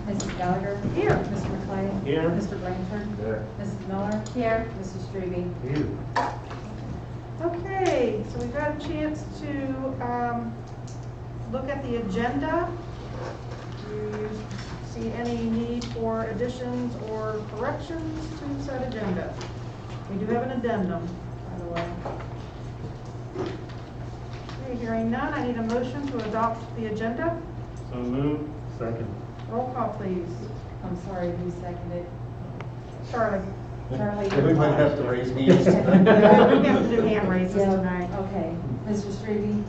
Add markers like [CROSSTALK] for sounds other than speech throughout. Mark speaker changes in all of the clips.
Speaker 1: Mrs. Gallagher.
Speaker 2: Here.
Speaker 1: Mr. McLean.
Speaker 3: Here.
Speaker 1: Mr. Blanchard.
Speaker 3: There.
Speaker 1: Mrs. Miller.
Speaker 2: Here.
Speaker 1: Mrs. Strebe.
Speaker 3: You.
Speaker 2: Okay, so we got a chance to um, look at the agenda. Do you see any need for additions or corrections to said agenda? We do have an addendum, by the way. Okay, Hearing none, I need a motion to adopt the agenda.
Speaker 3: So moved. Second.
Speaker 2: Roll call, please.
Speaker 1: I'm sorry, who seconded?
Speaker 2: Charlie. [LAUGHS]
Speaker 1: Charlie.
Speaker 4: We might have to raise hands.
Speaker 2: We have to do hand raises
Speaker 1: Yeah,
Speaker 2: tonight.
Speaker 1: Okay. Mr. Strebe.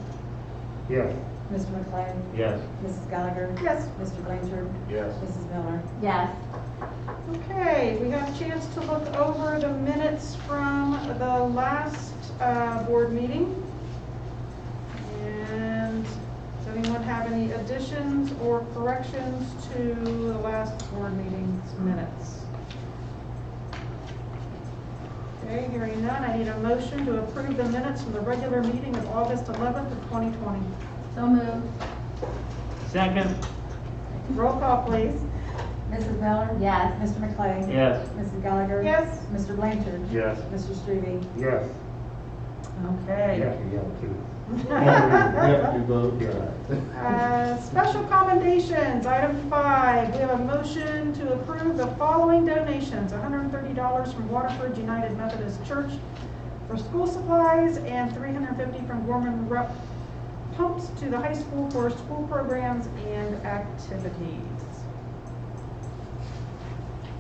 Speaker 3: Yes.
Speaker 1: Mr. McLean.
Speaker 3: Yes.
Speaker 1: Mrs. Gallagher.
Speaker 2: Yes.
Speaker 1: Mr. Blanchard.
Speaker 4: Yes.
Speaker 1: Mrs. Miller.
Speaker 5: Yes.
Speaker 2: Okay, we got a chance to look over the minutes from the last uh, board meeting. And does anyone have any additions or corrections to the last board meeting's minutes? Okay, hearing none, I need a motion to approve the minutes from the regular meeting of August 11th of 2020.
Speaker 5: So moved.
Speaker 3: Second.
Speaker 2: Roll call, please.
Speaker 1: Mrs. Miller.
Speaker 5: Yes.
Speaker 1: Mr. McLean.
Speaker 3: Yes.
Speaker 1: Mrs. Gallagher.
Speaker 2: Yes.
Speaker 1: Mr. Blanchard.
Speaker 3: Yes.
Speaker 1: Mr. Strebe.
Speaker 3: Yes.
Speaker 2: Okay. [LAUGHS]
Speaker 3: yell too.
Speaker 4: We have to do both. yeah.
Speaker 2: Uh, Special commendations, item five, we have a motion to approve the following donations. $130 from Waterford United Methodist Church for school supplies and $350 from Gorman Rep pumps to the high school for school programs and activities.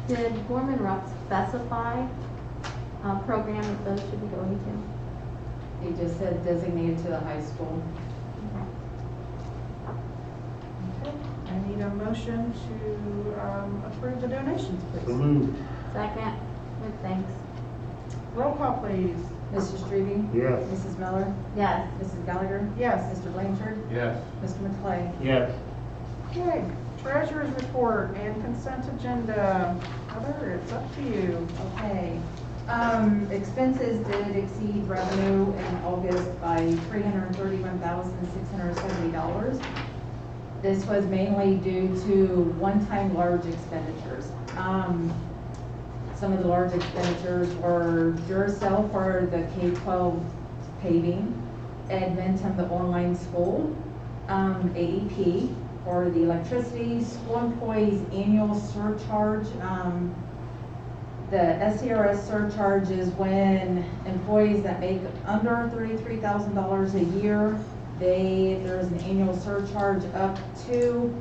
Speaker 5: Did Gorman Rupp specify uh, program that those should be going to?
Speaker 1: He just said designated to the high school.
Speaker 2: Okay, I need a motion to um, approve the donations,
Speaker 3: So
Speaker 2: please.
Speaker 3: moved.
Speaker 5: Second, with thanks.
Speaker 2: Roll call, please.
Speaker 1: Mrs. Strebe.
Speaker 3: Yes.
Speaker 1: Mrs. Miller.
Speaker 5: Yes.
Speaker 1: Mrs. Gallagher.
Speaker 2: Yes.
Speaker 1: Mr. Blanchard.
Speaker 4: Yes.
Speaker 1: Mr. McLean.
Speaker 3: Yes.
Speaker 2: Okay, treasurer's report and consent agenda. Heather, it's up to you.
Speaker 1: Okay. Um, expenses did exceed revenue in August by three hundred and thirty-one thousand, six hundred and seventy dollars. This was mainly due to one-time large expenditures. Um, some of the large expenditures were Duracell for the K-12 paving, Edmonton, the online school, um, AEP for the electricity, school employees' annual surcharge, um, the SCRS surcharge is when employees that make under thirty-three thousand dollars a year, they, there's an annual surcharge up to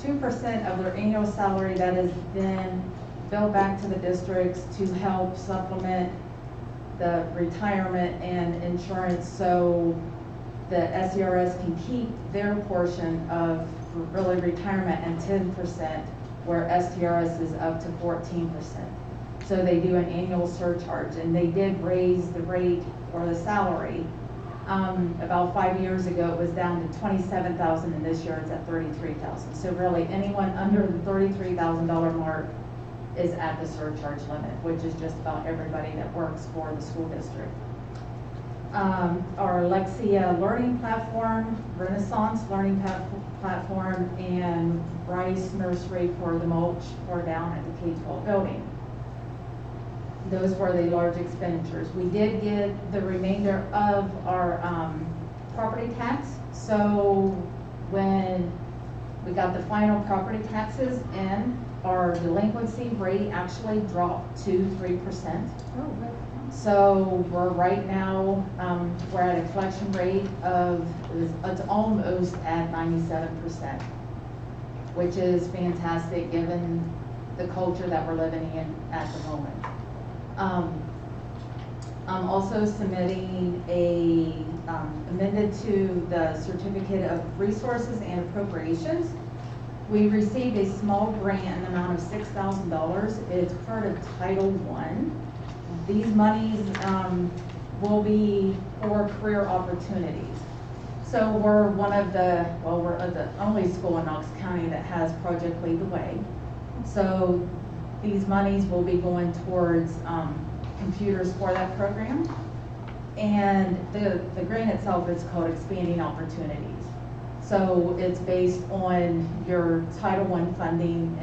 Speaker 1: two percent of their annual salary that is then billed back to the districts to help supplement the retirement and insurance, so the SCRS can keep their portion of really retirement and ten percent, where STRS is up to fourteen percent. So they do an annual surcharge, and they did raise the rate or the salary. Um, about five years ago, it was down to twenty-seven thousand, and this year it's at thirty-three thousand. So really, anyone under the thirty-three thousand dollar mark is at the surcharge limit, which is just about everybody that works for the school district. Um, our Lexia Learning Platform, Renaissance Learning Pa- Platform, and Rice Nursery for the mulch for down at the K-12 building those were the large expenditures. We did get the remainder of our, um, property tax, so when we got the final property taxes in, our delinquency rate actually dropped to three percent. So we're right now, um, we're at a collection rate of, it's almost at ninety-seven percent, which is fantastic, given the culture that we're living in at the moment. Um, I'm also submitting a um, amended to the certificate of resources and appropriations. We received a small grant in the amount of six thousand dollars. It's part of Title One. These monies, um, will be for career opportunities. So we're one of the, well, we're the only school in Knox County that has Project Lead the Way. So these monies will be going towards, um, computers for that program. And the, the grant itself is called Expanding Opportunities. So it's based on your Title I funding